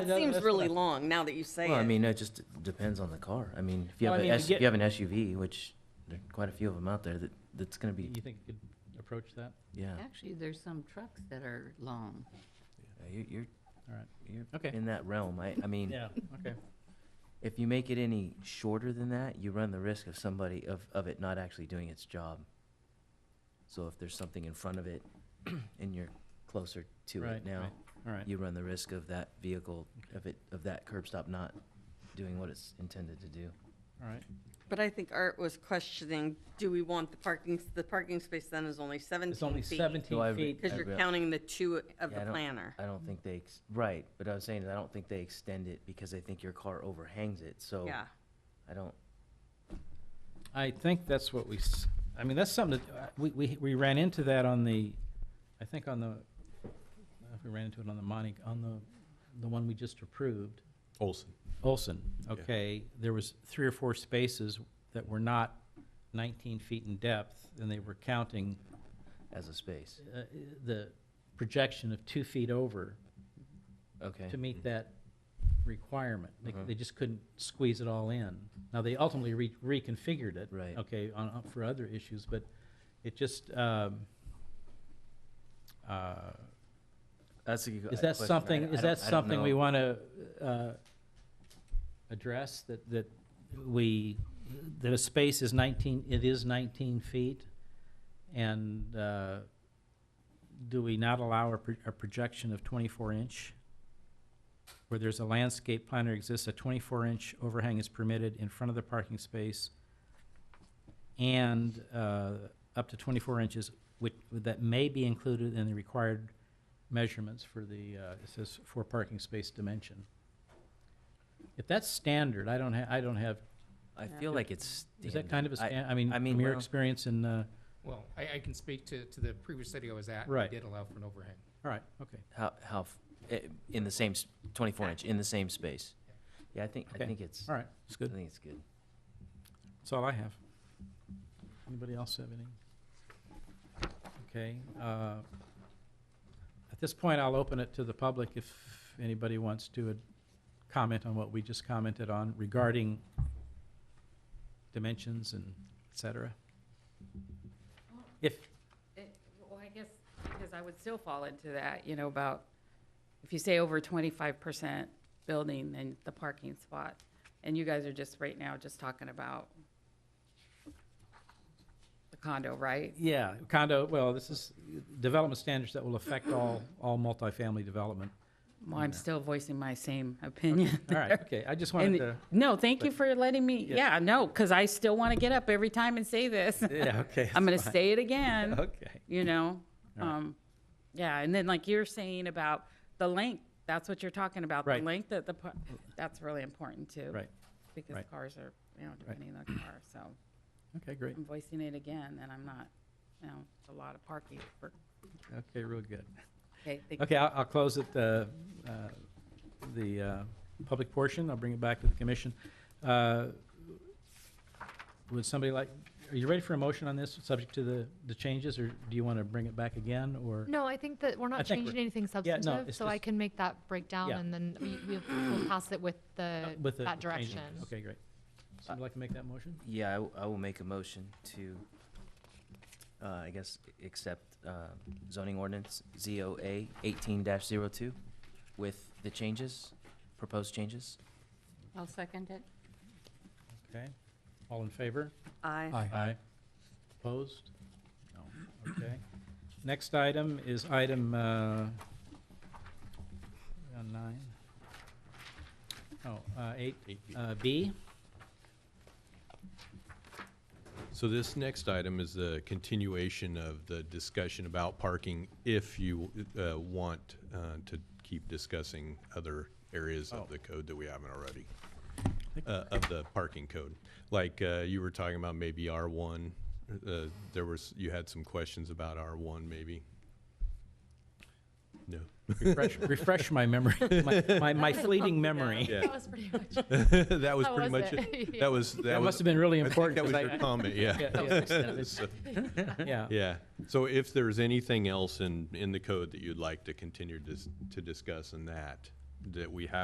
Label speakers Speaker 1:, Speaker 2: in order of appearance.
Speaker 1: That
Speaker 2: Seems
Speaker 1: that's
Speaker 2: really
Speaker 1: what I-
Speaker 2: long now that you say
Speaker 3: Well, I
Speaker 2: it.
Speaker 3: mean, it just d- depends on the car. I mean, if you
Speaker 1: Well,
Speaker 3: have
Speaker 1: I
Speaker 3: an
Speaker 1: mean, to
Speaker 3: S,
Speaker 1: get-
Speaker 3: if you have an SUV, which there are quite a few of them out there, that, that's gonna be,
Speaker 1: You think you could approach that?
Speaker 3: yeah.
Speaker 4: Actually, there's some trucks that are long.
Speaker 3: Uh, you- You're,
Speaker 1: All right.
Speaker 3: you're
Speaker 1: Okay.
Speaker 3: in that realm. I, I mean,
Speaker 1: Yeah, okay.
Speaker 3: if you make it any shorter than that, you run the risk of somebody, of, of it not actually doing its job. So if there's something in front of it and you're closer to
Speaker 1: Right,
Speaker 3: it now,
Speaker 1: right. All right.
Speaker 3: you run the risk of that vehicle, of it, of that curb stop not doing what it's intended to do.
Speaker 1: All right.
Speaker 2: But I think Art was questioning, do we want the parking, the parking space then is only seventeen feet?
Speaker 1: It's only
Speaker 3: So I
Speaker 1: seventeen
Speaker 3: re-
Speaker 1: feet.
Speaker 2: Because
Speaker 3: Yeah.
Speaker 2: you're counting the two of
Speaker 3: Yeah, I
Speaker 2: the
Speaker 3: don't-
Speaker 2: planner.
Speaker 3: I don't think they, ex- right, but I was saying that I don't think they extend it because they think your car overhangs it, so.
Speaker 2: Yeah.
Speaker 3: I don't,
Speaker 1: I think that's what we, s- I mean, that's something that, uh, we, we, we ran into that on the, I think on the, I don't know if we ran into it on the Monty, on the, the one we just approved.
Speaker 5: Olson.
Speaker 1: Olson, okay, there was three or four spaces that were not nineteen feet in depth, and they were counting
Speaker 3: as a space,
Speaker 1: uh, the projection of two feet over
Speaker 3: okay. Mm. Uh-huh.
Speaker 1: to meet that requirement. They, they just couldn't squeeze it all in. Now, they ultimately re- reconfigured it.
Speaker 3: Right.
Speaker 1: Okay, on, on- for other issues, but it just, um, uh,
Speaker 3: That's a good
Speaker 1: is
Speaker 3: question.
Speaker 1: that something,
Speaker 3: I- I
Speaker 1: is
Speaker 3: don't-
Speaker 1: that
Speaker 3: I don't
Speaker 1: something we
Speaker 3: know.
Speaker 1: want to address, that, that we, that a space is 19, it is 19 feet? And uh, do we not allow a pro- a projection of 24-inch? Where there's a landscape plan or exists, a 24-inch overhang is permitted in front of the parking space and uh, up to 24 inches, which, that may be included in the required measurements for the, uh, it says for parking space dimension. If that's standard, I don't ha, I don't have,
Speaker 3: I feel like it's.
Speaker 1: is that kind of a
Speaker 3: standard.
Speaker 1: stan, I mean,
Speaker 3: I mean,
Speaker 1: from your
Speaker 3: well-
Speaker 1: experience in, uh,
Speaker 6: Well, I, I can speak to, to the previous study I was at.
Speaker 1: Right.
Speaker 6: It did allow for an overhang.
Speaker 1: all right, okay.
Speaker 3: I- How, how, f- eh, in the same, s- twenty-four inch, in the same space. Yeah, I think, I
Speaker 1: Okay.
Speaker 3: think it's,
Speaker 1: All
Speaker 3: I
Speaker 1: right, it's good.
Speaker 3: think it's good.
Speaker 1: That's all I have. Anybody else have any? Okay, uh, at this point, I'll open it to the public if anybody wants to uh, comment on what we just commented on regarding dimensions and et cetera. If,
Speaker 7: It- Well, I guess, because I would still fall into that, you know, about if you say over twenty-five percent building, then the parking spot. And you guys are just, right now, just talking about the condo, right?
Speaker 1: Yeah, condo, well, this is development standards that will affect all, all multifamily development.
Speaker 7: Well, I'm still voicing my same opinion.
Speaker 1: All right, okay, I just wanted
Speaker 7: And-
Speaker 1: to,
Speaker 7: No, thank you for letting me, yeah, no, because I still want to get up every time and say this.
Speaker 1: yeah, okay.
Speaker 7: I'm going
Speaker 1: that's
Speaker 7: to
Speaker 1: fine.
Speaker 7: say it again.
Speaker 1: Okay,
Speaker 7: you know?
Speaker 1: All right.
Speaker 7: Um, yeah, and then like you're saying about the length, that's what you're talking about, the
Speaker 1: Right.
Speaker 7: length that the, par- that's really important too.
Speaker 1: right,
Speaker 7: Because
Speaker 1: right.
Speaker 7: cars are, you know, depending on the car, so
Speaker 1: okay, great,
Speaker 7: I'm voicing it again, and I'm not, you know, it's a lot of parking for,
Speaker 1: okay, real good.
Speaker 7: okay, thank you.
Speaker 1: Okay, I'll, I'll close it, uh, uh, the uh, public portion, I'll bring it back to the commission. Uh, Would somebody like, are you ready for a motion on this, subject to the, the changes, or do you want to bring it back again, or?
Speaker 8: No, I think that we're
Speaker 1: I
Speaker 8: not
Speaker 1: think we're-
Speaker 8: changing anything
Speaker 1: yeah, no,
Speaker 8: substantive,
Speaker 1: it's
Speaker 8: so I
Speaker 1: just-
Speaker 8: can make that breakdown
Speaker 1: Yeah. Uh,
Speaker 8: and then we, we'll we'll pass it with the,
Speaker 1: With the-
Speaker 8: that
Speaker 1: the changes.
Speaker 8: direction.
Speaker 1: Okay, great. Somebody like to make that motion?
Speaker 3: Yeah, I w- I, will make a motion to, uh, I guess, accept, uh, zoning ordinance ZOA eighteen 2 with the changes, proposed changes.
Speaker 4: I'll second it.
Speaker 1: Okay, all in favor?
Speaker 2: I,
Speaker 1: Aye. Opposed? No, okay. Next item is item, uh, on nine? Oh, uh, eight, uh, B?
Speaker 5: So this next item is the continuation of the discussion about parking if you uh, want uh, to keep discussing other areas of the code that we haven't already, uh, of the parking code. Like uh, you were talking about maybe R1, uh, there was, you had some questions about R1 maybe? No?
Speaker 1: Refresh, refresh my memory, my, my- my fleeting memory.
Speaker 5: Yeah.
Speaker 8: That was pretty much,
Speaker 5: That was
Speaker 8: How
Speaker 5: pretty
Speaker 8: was
Speaker 5: much
Speaker 8: it?
Speaker 5: it.
Speaker 8: Yeah.
Speaker 5: That was, that was.
Speaker 1: That must have been really
Speaker 5: I think
Speaker 1: important.
Speaker 5: that was
Speaker 1: 'cause
Speaker 5: your comment, yeah.
Speaker 1: I-
Speaker 5: So-
Speaker 1: Yeah, yeah.
Speaker 5: Yeah, so if there's anything else in, in the code that you'd like to continue dis- to discuss in that, that we have